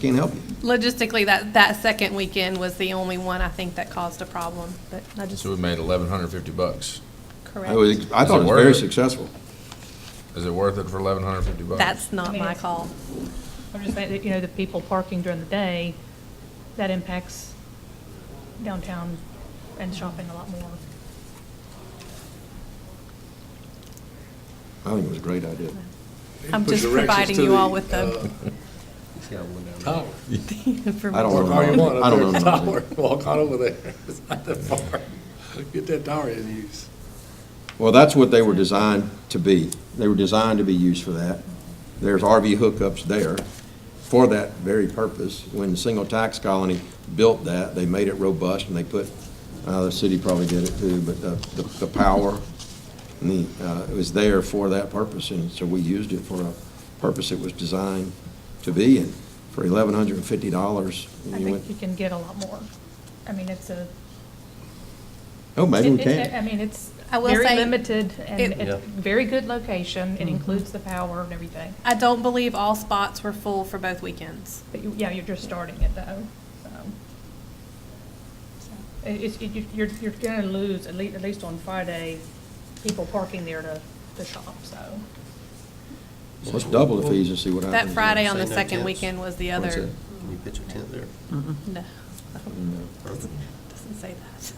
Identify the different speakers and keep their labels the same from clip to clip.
Speaker 1: Can't help you.
Speaker 2: Logistically, that, that second weekend was the only one I think that caused a problem, but I just,
Speaker 3: So we made eleven hundred fifty bucks.
Speaker 1: I was,
Speaker 2: correct.
Speaker 1: I thought oh, it was very successful.
Speaker 3: Is it worth it for eleven hundred fifty bucks?
Speaker 2: That's not my call.
Speaker 4: I'm just saying that, you know, the people parking during the day, that impacts downtown and shopping a lot more.
Speaker 1: I think it was a great idea.
Speaker 2: I'm
Speaker 5: Push
Speaker 2: just
Speaker 5: directions
Speaker 2: providing
Speaker 5: to
Speaker 2: you
Speaker 5: the, uh,
Speaker 2: all with the
Speaker 5: Tower.
Speaker 1: I don't
Speaker 5: Or
Speaker 1: know.
Speaker 5: how you want,
Speaker 1: I
Speaker 5: up
Speaker 1: don't
Speaker 5: there,
Speaker 1: know.
Speaker 5: tower, walk on over there, it's not that far. Get that tower in use.
Speaker 1: Well, that's what they were designed to be. They were designed to be used for that. There's RV hookups there for that very purpose. When the single tax colony built that, they made it robust and they put, uh, the city probably did it too, but the, the, the power and the, uh, it was there for that purpose and so we used it for a purpose it was designed to be and for eleven hundred and fifty dollars.
Speaker 4: I think you can get a lot more. I mean, it's a.
Speaker 1: Oh, maybe we
Speaker 4: it- it- I
Speaker 1: can.
Speaker 4: mean, it's
Speaker 2: I will
Speaker 4: very
Speaker 2: say
Speaker 4: limited and
Speaker 2: it- Mm-hmm.
Speaker 4: it's very good location. It includes the power and everything.
Speaker 2: I don't believe all spots were full for both weekends.
Speaker 4: But you, yeah, you're just starting it though, so. So, it- It's, it- you- you're, you're gonna lose, at least, at least on Friday, people parking there to, to shop, so.
Speaker 1: Let's double the fees and see what happens.
Speaker 2: That Friday on the
Speaker 6: Say no
Speaker 2: second
Speaker 6: tents.
Speaker 2: weekend was the
Speaker 1: What's
Speaker 2: other,
Speaker 6: Can you pitch a tent there?
Speaker 2: no. Doesn't say that.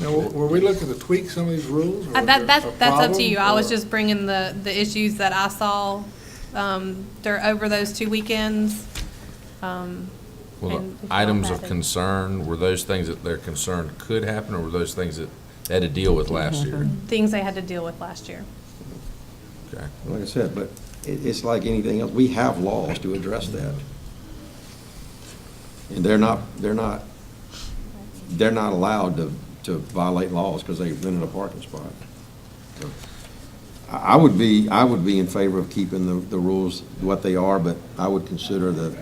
Speaker 5: Now, were were we looking to tweak some of these rules? or
Speaker 2: Uh,
Speaker 5: was
Speaker 2: That,
Speaker 5: there a
Speaker 2: that, that's up to
Speaker 5: problem,
Speaker 2: you. I was
Speaker 5: or-
Speaker 2: just bringing the, the issues that I saw, um, dur over those two weekends. um,
Speaker 3: Well,
Speaker 2: and if
Speaker 3: the
Speaker 2: y'all
Speaker 3: items
Speaker 2: have
Speaker 3: of
Speaker 2: it.
Speaker 3: concern, were those things that they're concerned could happen, or were those things that they had to deal with last year?
Speaker 2: Things they had to deal with last year.
Speaker 3: Okay.
Speaker 1: Like I said, but it, it's like anything else, we have laws to address that. And they're not, they're not, they're not allowed to, to violate laws because they've been in a parking spot. So, I, I would be, I would be in favor of keeping the, the rules what they are, but I would consider the,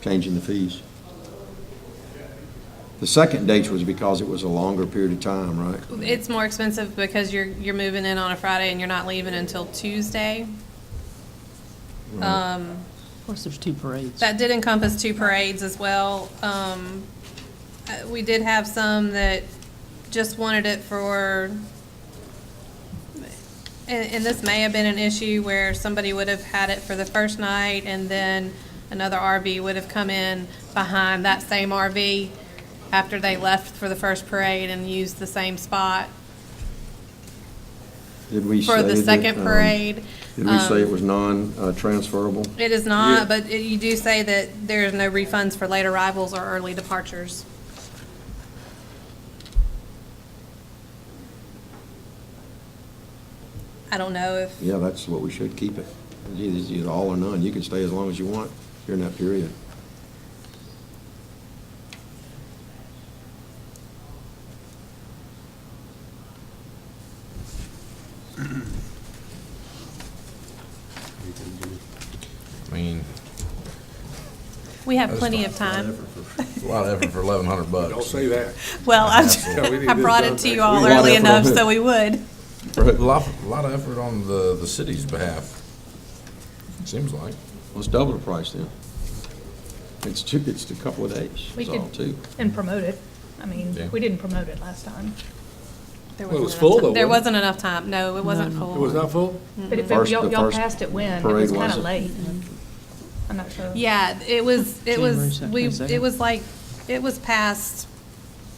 Speaker 1: changing the fees. The second date was because it was a longer period of time, right?
Speaker 2: It's more expensive because you're, you're moving in on a Friday and you're not leaving until Tuesday.
Speaker 3: Mm-hmm.
Speaker 2: Um,
Speaker 7: Of course, there's two parades.
Speaker 2: that did encompass two parades as well. Um, uh, we did have some that just wanted it for, and, and this may have been an issue where somebody would have had it for the first night and then another RV would have come in behind that same RV after they left for the first parade and used the same spot.
Speaker 1: Did we say
Speaker 2: for the
Speaker 1: that,
Speaker 2: second
Speaker 1: um,
Speaker 2: parade. Um,
Speaker 1: Did we say it was non-transferable?
Speaker 2: It is not, but it- you do say that there's no refunds for late arrivals or early departures. I don't know if,
Speaker 1: Yeah, that's what we should keep it. It's either- It's either all or none. You can stay as long as you want during that period.
Speaker 6: You can do
Speaker 3: I mean,
Speaker 2: we have plenty of time.
Speaker 3: it's a lot of effort for eleven hundred bucks.
Speaker 5: Don't say that.
Speaker 2: Well, I
Speaker 5: Yeah, we need
Speaker 2: I
Speaker 5: this
Speaker 2: brought
Speaker 5: done
Speaker 2: it to
Speaker 5: next
Speaker 2: you all
Speaker 1: week.
Speaker 2: early
Speaker 1: Whatever.
Speaker 2: enough, so we would.
Speaker 3: A lot, a lot of effort on the, the city's behalf, seems like.
Speaker 1: Let's double the price then. It's two, it's a couple of days,
Speaker 4: We
Speaker 1: it's
Speaker 4: could
Speaker 1: all too.
Speaker 4: And promote it. I
Speaker 3: Yeah.
Speaker 4: mean, we didn't promote it last time.
Speaker 2: There
Speaker 5: Well,
Speaker 2: wasn't
Speaker 5: it was
Speaker 2: enough
Speaker 5: full
Speaker 2: time.
Speaker 5: though,
Speaker 2: There
Speaker 5: wasn't
Speaker 2: wasn't enough time. No, it wasn't full.
Speaker 5: It was not full?
Speaker 4: But if
Speaker 1: First-
Speaker 4: y'all,
Speaker 1: the
Speaker 4: y'all
Speaker 1: first
Speaker 4: passed it when, it was
Speaker 1: parade
Speaker 4: kind of
Speaker 1: wasn't.
Speaker 4: late. I'm not sure.
Speaker 2: Yeah, it was, it was,
Speaker 7: January
Speaker 2: we,
Speaker 7: second,
Speaker 2: it
Speaker 7: second.
Speaker 2: was like, it was past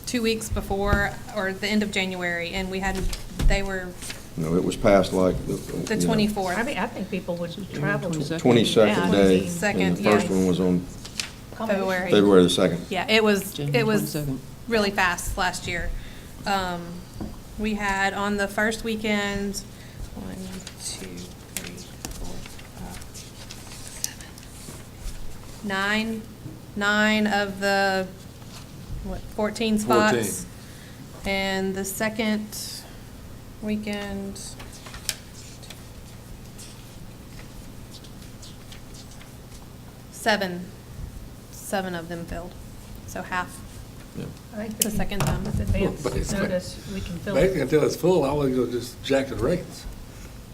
Speaker 2: two weeks before, or the end of January, and we hadn't, they were
Speaker 1: No, it was past like the.
Speaker 2: the
Speaker 1: you know,
Speaker 4: I mean,
Speaker 2: twenty-fourth.
Speaker 4: I think people would travel to.
Speaker 7: 22nd.
Speaker 1: Twenty-second
Speaker 4: Yeah.
Speaker 1: day. And
Speaker 2: Second,
Speaker 1: the first
Speaker 2: yes.
Speaker 1: one was on
Speaker 2: February.
Speaker 1: February the second.
Speaker 2: Yeah, it was, it
Speaker 7: January
Speaker 2: was
Speaker 7: 22nd.
Speaker 2: really fast last year. Um, we had on the first weekend, one, two, three, four, five, seven, nine, nine of the, what, fourteen spots? And the second weekend, seven, seven of them filled, so half.
Speaker 1: Yeah.
Speaker 4: I think
Speaker 2: The
Speaker 4: if you-
Speaker 2: second time.
Speaker 4: With
Speaker 5: But
Speaker 4: advance
Speaker 5: it's like-
Speaker 4: notice, we can fill
Speaker 5: Basically,
Speaker 4: it.
Speaker 5: until it's full, I was gonna just jack the rates.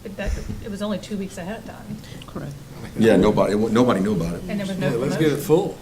Speaker 4: But that, it was only two weeks ahead of time,
Speaker 7: Correct.
Speaker 1: Yeah, nobody, nobody knew about it.
Speaker 4: and there was no
Speaker 5: Yeah, let's get it
Speaker 4: promotion.
Speaker 5: full.